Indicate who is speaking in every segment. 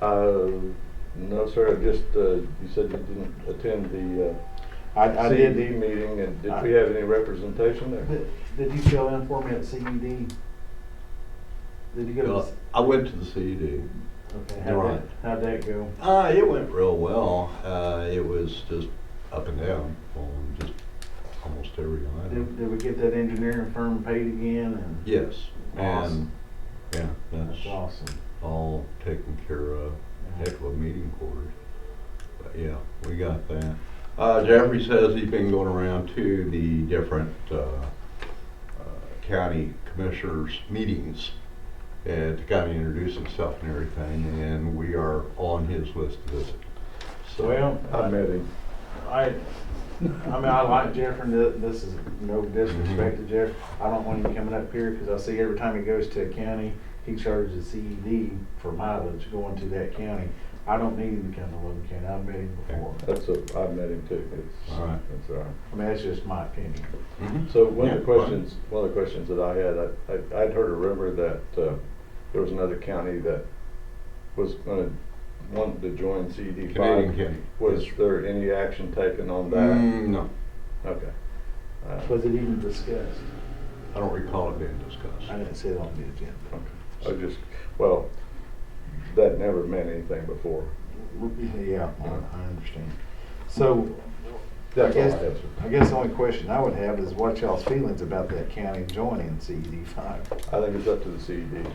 Speaker 1: Uh, no, sir, I just, uh, you said you didn't attend the, uh,
Speaker 2: I, I did,
Speaker 1: CED meeting, and did we have any representation there?
Speaker 2: did, did you fill in for me at CED? Did you get a?
Speaker 3: Well, I went to the E CED.
Speaker 2: Okay,
Speaker 3: you're
Speaker 2: how'd
Speaker 3: right.
Speaker 2: that, how'd that go?
Speaker 3: Uh, it went real well. Uh, it was just up and down on just almost every
Speaker 2: Did,
Speaker 3: item.
Speaker 2: did we get that engineering firm paid again and?
Speaker 3: Yes, and,
Speaker 2: Awesome.
Speaker 3: yeah, that's
Speaker 2: That's awesome.
Speaker 3: all taken care of. Heck of a meeting quarters. But yeah, we got that. Uh, Jeffrey says he's been going around to the different, uh, uh, county commissioners' meetings and to kind of introduce himself and everything, and we are on his list to visit. So-
Speaker 2: Well,
Speaker 1: I met him.
Speaker 2: I, I mean, I like Jeff, and th- this is no disrespect to Jeff. I don't want him coming up here, because I see every time he goes to a county, he charges a CED for mileage going to that county. I don't need him to come to Logan County, I've met him before.
Speaker 1: That's a, I met him too. It's-
Speaker 3: All right.
Speaker 1: That's all right.
Speaker 2: I mean, that's just my opinion.
Speaker 3: Mhm.
Speaker 1: So one
Speaker 3: Yeah,
Speaker 1: of the
Speaker 3: well,
Speaker 1: questions, one of the questions that I had, I- I, I'd heard a rumor that, uh, there was another county that was gonna, wanted to join CD
Speaker 3: Canadian
Speaker 1: five.
Speaker 3: County.
Speaker 1: Was there any action taken on that?
Speaker 3: Mm, no,
Speaker 1: Okay. Uh,
Speaker 2: Was it even discussed?
Speaker 3: I don't recall it being
Speaker 2: I
Speaker 3: discussed.
Speaker 2: didn't see it on the agenda.
Speaker 1: I just, well, that never meant anything before.
Speaker 2: Yeah, I I understand. So, I
Speaker 1: That's all I
Speaker 2: guess,
Speaker 1: have, sir.
Speaker 2: I guess the only question I would have is what y'all's feelings about that county joining CED five?
Speaker 1: I think it's up to the E CED.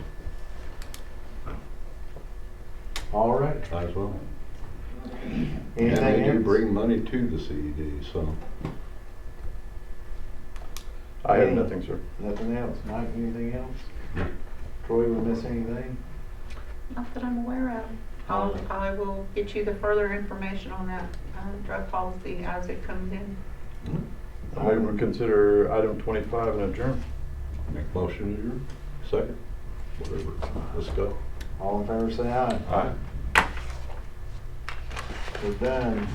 Speaker 2: All right,
Speaker 3: Might as well. And they
Speaker 2: anything
Speaker 3: do
Speaker 2: else?
Speaker 3: bring money to the CED, so.
Speaker 1: I have
Speaker 2: Any-
Speaker 1: nothing, sir.
Speaker 2: Nothing else, Mike, anything else? Troy, we miss anything?
Speaker 4: Not that I'm aware of. I'll, I will get you the further information on that uh, drug policy as it comes in.
Speaker 1: I would consider item twenty-five an adjourn.
Speaker 3: Make motion adjourned, second, whatever, let's go.
Speaker 2: All in favor, say aye.
Speaker 1: Aye.
Speaker 2: We're done.